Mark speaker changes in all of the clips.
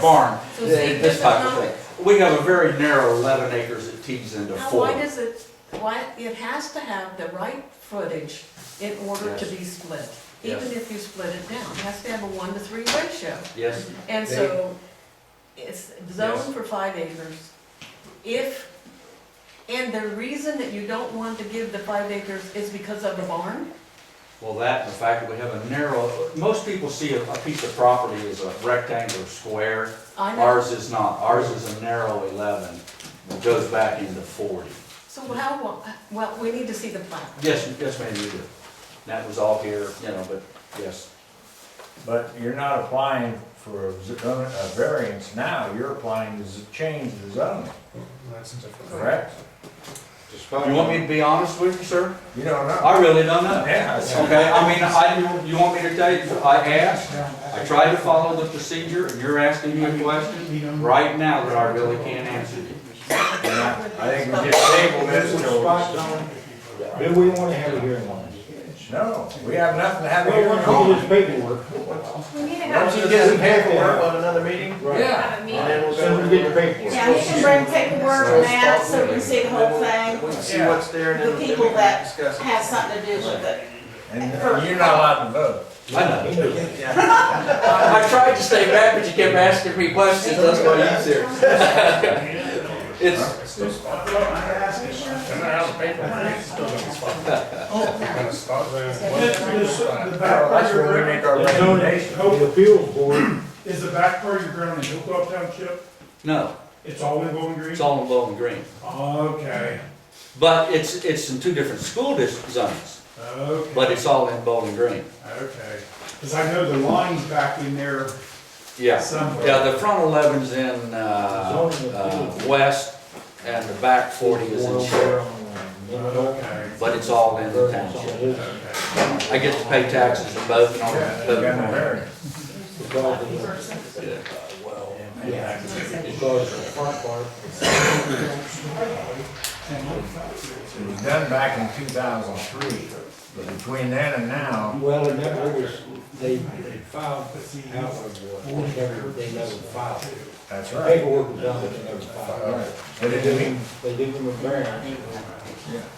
Speaker 1: barn,
Speaker 2: So see,
Speaker 1: this
Speaker 2: this
Speaker 1: type
Speaker 2: is
Speaker 1: of
Speaker 2: not-
Speaker 1: thing. We have a very narrow eleven acres that tees into
Speaker 2: Now,
Speaker 1: four.
Speaker 2: why does it, why, it has to have the right footage in order to be split, even if you split it down, it has to have a one to three ratio.
Speaker 1: Yes,
Speaker 2: And
Speaker 3: They-
Speaker 2: so, it's
Speaker 1: Yes.
Speaker 2: zoned for five acres. If, and the reason that you don't want to give the five acres is because of the barn?
Speaker 1: well, that, and the fact that we have a narrow, most people see a, a piece of property as a rectangular square.
Speaker 2: I know,
Speaker 1: Ours is not, ours is a narrow eleven that goes back into forty.
Speaker 2: so how, wa- well, we need to see the plat.
Speaker 1: Yes, yes, ma'am, you do. That was all here, you know, but, yes.
Speaker 3: But you're not applying for a z- a variance now, you're applying to z- change the zoning, correct?
Speaker 1: You want me to be honest with you, sir?
Speaker 3: You don't know.
Speaker 1: I really don't know.
Speaker 3: Yeah.
Speaker 1: Okay, I mean, I, you want me to tell you, I asked, I tried to follow the procedure, and you're asking me a question right now that I really can't answer you.
Speaker 3: I think we just table this till.
Speaker 4: Do we want to have a hearing on this?
Speaker 3: No, we have nothing to have a
Speaker 4: Well,
Speaker 3: hearing
Speaker 4: we're
Speaker 3: on.
Speaker 4: going to do this paperwork.
Speaker 5: We need to
Speaker 3: Once
Speaker 5: have,
Speaker 3: you get some paperwork on another meeting?
Speaker 4: Right.
Speaker 3: Yeah.
Speaker 5: have a
Speaker 4: And
Speaker 5: meeting.
Speaker 4: then we'll go and get the paperwork.
Speaker 5: Yeah, you can bring paperwork and that, so we can see the whole
Speaker 6: We
Speaker 5: thing,
Speaker 6: can see what's there and then
Speaker 5: The
Speaker 6: we
Speaker 5: people
Speaker 6: can
Speaker 5: that
Speaker 6: discuss it.
Speaker 5: has something to do with it.
Speaker 3: And you're not allowed to vote.
Speaker 1: I know.
Speaker 6: Yeah.
Speaker 1: I tried to stay back, but you kept asking me questions, that's why you said. It's,
Speaker 2: Oh,
Speaker 7: The the back part
Speaker 3: That's
Speaker 7: of your
Speaker 3: where we
Speaker 7: ground
Speaker 3: make our recommendation.
Speaker 4: The appeals board,
Speaker 7: is the back part of your ground in Hilltop Township,
Speaker 1: no,
Speaker 7: it's all in Bowling Green?
Speaker 1: it's all in Bowling Green.
Speaker 7: Okay,
Speaker 1: But it's, it's in two different school district zones,
Speaker 7: okay.
Speaker 1: but it's all in Bowling Green.
Speaker 7: Okay, because I know the line's back in there
Speaker 1: Yeah.
Speaker 7: somewhere.
Speaker 1: Yeah, the front eleven's in, uh, uh, west, and the back forty is in Sheridan,
Speaker 7: Okay,
Speaker 1: but it's all in the township.
Speaker 7: okay.
Speaker 1: I get to pay taxes in both, and all
Speaker 3: Yeah,
Speaker 1: that.
Speaker 3: you got no variance. It was done back in two thousand and three, but between then and now,
Speaker 6: Well, and that was, they, they filed out of, uh, never- they never filed.
Speaker 3: that's
Speaker 6: The
Speaker 3: right.
Speaker 6: Paperwork was done, but they never filed.
Speaker 3: But it didn't mean,
Speaker 6: They give them a variance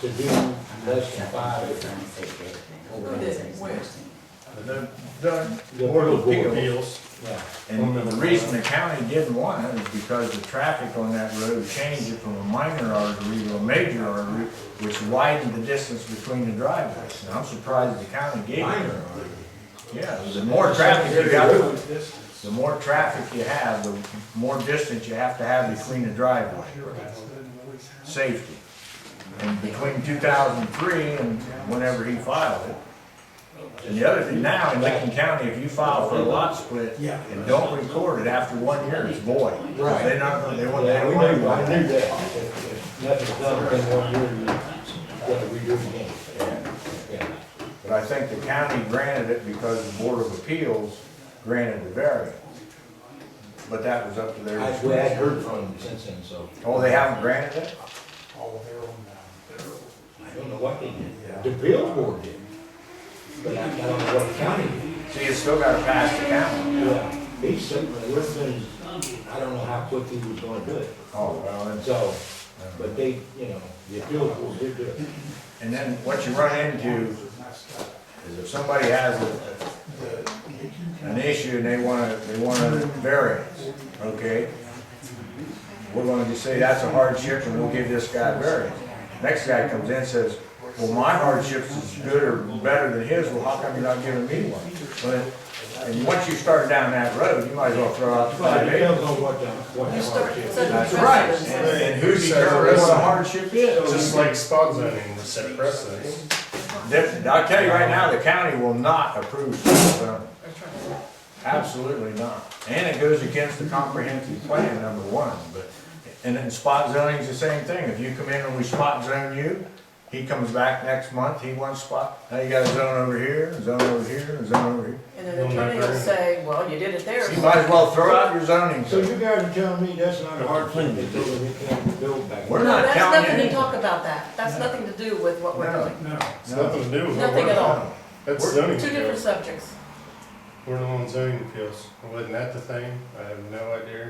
Speaker 6: to do less than five acres.
Speaker 3: the, the
Speaker 6: The
Speaker 3: Board of
Speaker 6: board.
Speaker 3: Appeals.
Speaker 6: Yeah.
Speaker 3: And the reason the county didn't want it is because the traffic on that road changed it from a minor artery to a major artery, which widened the distance between the driveways. And I'm surprised the county gave it.
Speaker 4: Minor
Speaker 3: Yeah, the more traffic you got, the more traffic you have, the more distance you have to have between the driveway. Safety. And between two thousand and three and whenever he filed it. And the other thing, now in Lincoln County, if you file for a lot split and don't record it after one year, it's void.
Speaker 6: Right.
Speaker 3: They're not, gonna- they won't, they
Speaker 6: Yeah, we
Speaker 3: don't want
Speaker 6: knew, I
Speaker 3: to.
Speaker 6: knew that. If- if Nothing's done within one year, you got to redo it again. Yeah.
Speaker 3: But I think the county granted it because the Board of Appeals granted the variance. But that was up to their.
Speaker 6: I, we had heard from them since then, so.
Speaker 3: Oh, they haven't granted it?
Speaker 6: I don't know what they did. The bill board did. But I I don't know what county did.
Speaker 3: See, it's still gotta pass the county.
Speaker 6: Yeah. He said, but it was, I don't know how quick he was gonna do it.
Speaker 3: Oh, well, that's-
Speaker 6: So, but they, you know, the bill board did do it.
Speaker 3: and then what you run into is if somebody has a- an issue and they wanna, they want a variance, okay? We're gonna just say, that's a hardship and we'll give this guy a variance. Next guy comes in and says, well, my hardship's as good or better than his, well, how come you're not giving me one? But, and once you start down that road, you might as well throw out the
Speaker 6: But
Speaker 3: five
Speaker 6: it
Speaker 3: acres.
Speaker 6: depends on what the, what the
Speaker 2: You start,
Speaker 6: hardship
Speaker 2: so
Speaker 6: is.
Speaker 2: the
Speaker 3: That's right.
Speaker 2: precedence-
Speaker 3: And and who determines what a hardship is?
Speaker 8: Just like spot zoning was set precedence.
Speaker 3: Definitely, I'll tell you right now, the county will not approve spot zoning. Absolutely not. And it goes against the comprehensive plan, number one, but, and then spot zoning's the same thing. If you come in and we spot zone you, he comes back next month, he wants spot, now you got a zone over here, a zone over here, a zone over here.
Speaker 2: And an attorney will say, well, you did it there.
Speaker 3: So You might as well throw out your zoning.
Speaker 6: So you guys are telling me that's not a hardship, they told them they can't build back.
Speaker 3: We're
Speaker 2: No,
Speaker 3: not
Speaker 2: that's
Speaker 3: counting
Speaker 2: nothing to
Speaker 3: anything.
Speaker 2: talk about that. That's nothing to do with what we're
Speaker 3: No.
Speaker 2: doing.
Speaker 7: No,
Speaker 8: It's nothing to do with. what
Speaker 2: Nothing
Speaker 8: we're-
Speaker 2: at all.
Speaker 8: That's
Speaker 3: We're-
Speaker 8: zoning.
Speaker 2: Two different subjects.
Speaker 8: We're on zoning appeals. Wasn't that the thing? I have no idea.